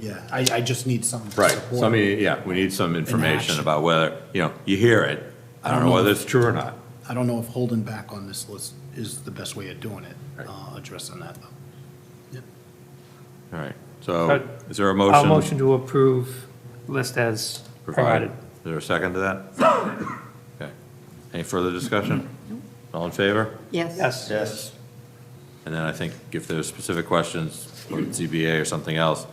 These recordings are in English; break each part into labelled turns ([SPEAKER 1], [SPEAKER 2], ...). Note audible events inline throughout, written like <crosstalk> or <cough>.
[SPEAKER 1] Yeah, I, I just need some support.
[SPEAKER 2] Right, so I mean, yeah, we need some information
[SPEAKER 1] action.
[SPEAKER 2] about whether, you know, you hear it, I don't know whether it's true or not.
[SPEAKER 1] I don't know if holding back on this list is the best way of doing it,
[SPEAKER 2] Right.
[SPEAKER 1] uh, addressing that though.
[SPEAKER 2] All right, so
[SPEAKER 3] Uh,
[SPEAKER 2] is there a
[SPEAKER 3] I'll
[SPEAKER 2] motion?
[SPEAKER 3] motion to approve list as
[SPEAKER 2] provided?
[SPEAKER 3] provided.
[SPEAKER 2] Is there a second to that? <coughs> Okay. Any further discussion? All in favor?
[SPEAKER 4] Yes.
[SPEAKER 3] Yes.
[SPEAKER 1] Yes.
[SPEAKER 2] And then I think if there's specific questions, or ZBA or something else,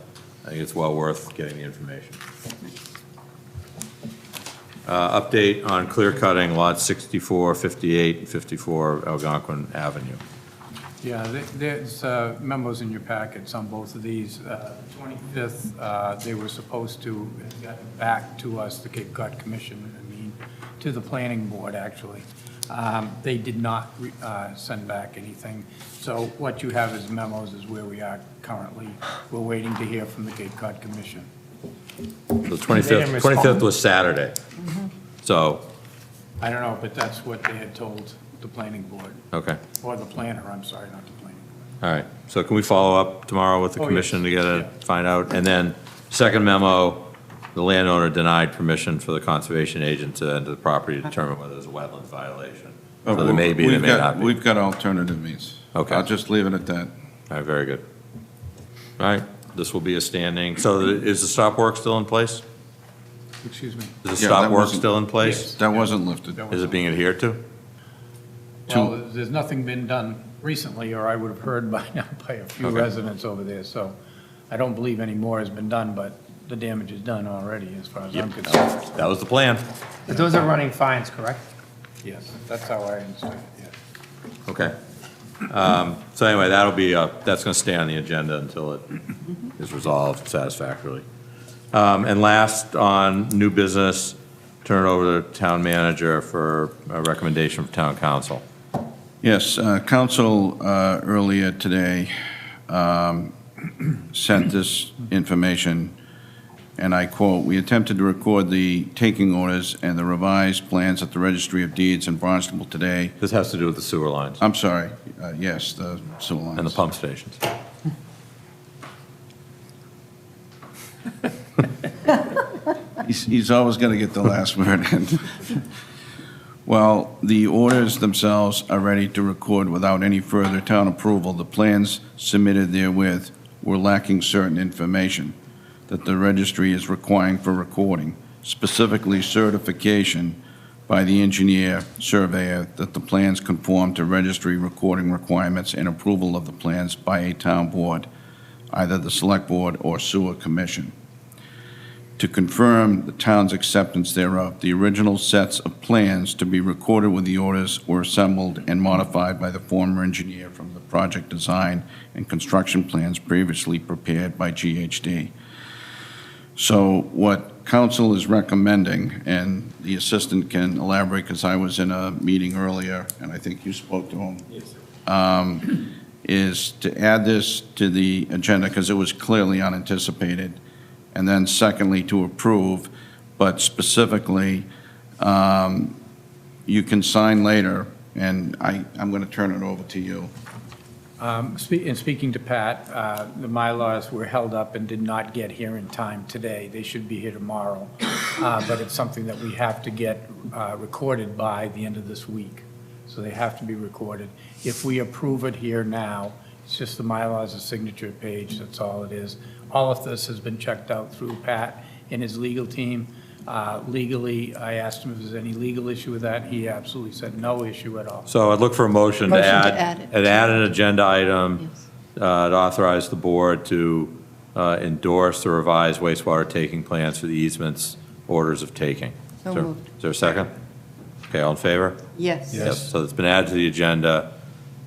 [SPEAKER 2] I think it's well worth getting the information. Uh, Update on clear cutting lots 64, 58, and 54 Algonquin Avenue.
[SPEAKER 5] Yeah, th- there's uh, memos in your packets on both of these. Uh, 25th, uh, they were supposed to have gotten back to us, the Cape Cod Commission, I mean, to the planning board, actually. Um, They did not re- uh, send back anything. So what you have as memos is where we are currently. We're waiting to hear from the Cape Cod Commission.
[SPEAKER 2] The
[SPEAKER 3] They didn't
[SPEAKER 2] 25th,
[SPEAKER 3] respond. Mm-hmm.
[SPEAKER 2] 25th was Saturday. So,
[SPEAKER 5] I don't know, but that's what they had told the planning board,
[SPEAKER 2] okay,
[SPEAKER 5] or the planner, I'm sorry, not the planning. board.
[SPEAKER 2] all right. So can we follow up tomorrow with the
[SPEAKER 5] Oh, yes.
[SPEAKER 2] commission to get a,
[SPEAKER 5] Yeah.
[SPEAKER 2] find out? And then, second memo, the landowner denied permission for the conservation agent to enter the property to determine whether there's a wetland violation. So there may be, there
[SPEAKER 6] Oh, We've
[SPEAKER 2] may
[SPEAKER 6] got-
[SPEAKER 2] not be. All
[SPEAKER 6] We've got alternative means.
[SPEAKER 2] Okay.
[SPEAKER 6] I'll just leave it at that.
[SPEAKER 2] right, very good. All right, this will be a standing, so the- is the stop work still in place?
[SPEAKER 5] Excuse me.
[SPEAKER 2] Is the
[SPEAKER 6] Yeah,
[SPEAKER 2] stop
[SPEAKER 6] that
[SPEAKER 2] work
[SPEAKER 6] wasn't-
[SPEAKER 2] still in place?
[SPEAKER 6] That wasn't lifted.
[SPEAKER 5] That
[SPEAKER 2] Is it being adhered to?
[SPEAKER 5] Well, there's nothing been done recently, or I would have heard <laughs> by now by a few
[SPEAKER 2] Okay.
[SPEAKER 5] residents over there, so I don't believe any more has been done, but the damage is done already, as far as I'm concerned.
[SPEAKER 2] That was the plan.
[SPEAKER 3] But those are running fines, correct?
[SPEAKER 5] Yes, that's how I understand it, yes.
[SPEAKER 2] Okay. Um, So anyway, that'll be, uh, that's going to stay on the agenda until it is resolved satisfactorily. Um, And last, on new business, turn it over to town manager for a recommendation from town council.
[SPEAKER 6] Yes, uh, council uh, earlier today um, <clears throat> sent this information, and I quote, "We attempted to record the taking orders and the revised plans at the Registry of Deeds in Barnstable today."
[SPEAKER 2] This has to do with the sewer lines
[SPEAKER 6] I'm sorry, uh, yes, the sewer lines.
[SPEAKER 2] and the pump stations.
[SPEAKER 6] He's, he's always going to get the last <laughs> word in. Well, the orders themselves are ready to record without any further town approval. The plans submitted therewith were lacking certain information that the registry is requiring for recording, specifically certification by the engineer surveyor that the plans conform to registry recording requirements and approval of the plans by a town board, either the select board or sewer commission to confirm the town's acceptance thereof. The original sets of plans to be recorded with the orders were assembled and modified by the former engineer from the project design and construction plans previously prepared by GHD. So what council is recommending, and the assistant can elaborate, because I was in a meeting earlier, and I think you spoke to him. Yes, Is to add this to the agenda, because it was clearly unanticipated, and then secondly, to approve, but specifically, um, you can sign later, and I, I'm going to turn it over to you.
[SPEAKER 5] Um, spe- And speaking to Pat, uh, the Mylars were held up and did not get here in time today. They should be here tomorrow, Uh, but it's something that we have to get uh, recorded by the end of this week. So they have to be recorded. If we approve it here now, it's just the Mylars, a signature page, that's all it is. All of this has been checked out through Pat and his legal team. Uh, Legally, I asked him if there's any legal issue with that. He absolutely said no issue at all.
[SPEAKER 2] So I'd look for a motion to
[SPEAKER 4] Motion to
[SPEAKER 2] add,
[SPEAKER 4] add it.
[SPEAKER 2] and add an agenda item uh, to authorize the board to uh, endorse the revised wastewater taking plans for the easements, orders of taking.
[SPEAKER 4] So
[SPEAKER 2] Is there-
[SPEAKER 4] moved.
[SPEAKER 2] Is there a second? Okay, all in favor?
[SPEAKER 4] Yes.
[SPEAKER 2] Yep, So it's been added to the agenda.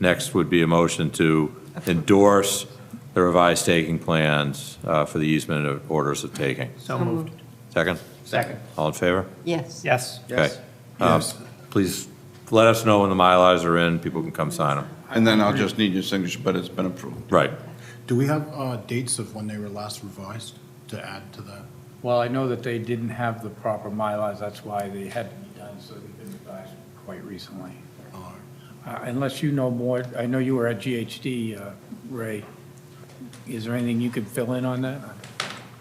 [SPEAKER 2] Next would be a motion to endorse the revised taking plans uh, for the easement of orders of taking.
[SPEAKER 3] So moved.
[SPEAKER 2] Second?
[SPEAKER 3] Second.
[SPEAKER 2] All in favor?
[SPEAKER 4] Yes.
[SPEAKER 3] Yes.
[SPEAKER 2] Okay. Um, Please let us know when the Mylars are in, people can come sign them.
[SPEAKER 6] And then I'll just need your signature, but it's been approved.
[SPEAKER 2] Right.
[SPEAKER 1] Do we have, uh, dates of when they were last revised to add to that?
[SPEAKER 5] Well, I know that they didn't have the proper Mylars, that's why they had to be done, so they've been revised quite recently.
[SPEAKER 1] Uh,
[SPEAKER 5] Uh, Unless you know more, I know you were at GHD, uh, Ray, is there anything you could fill in on that?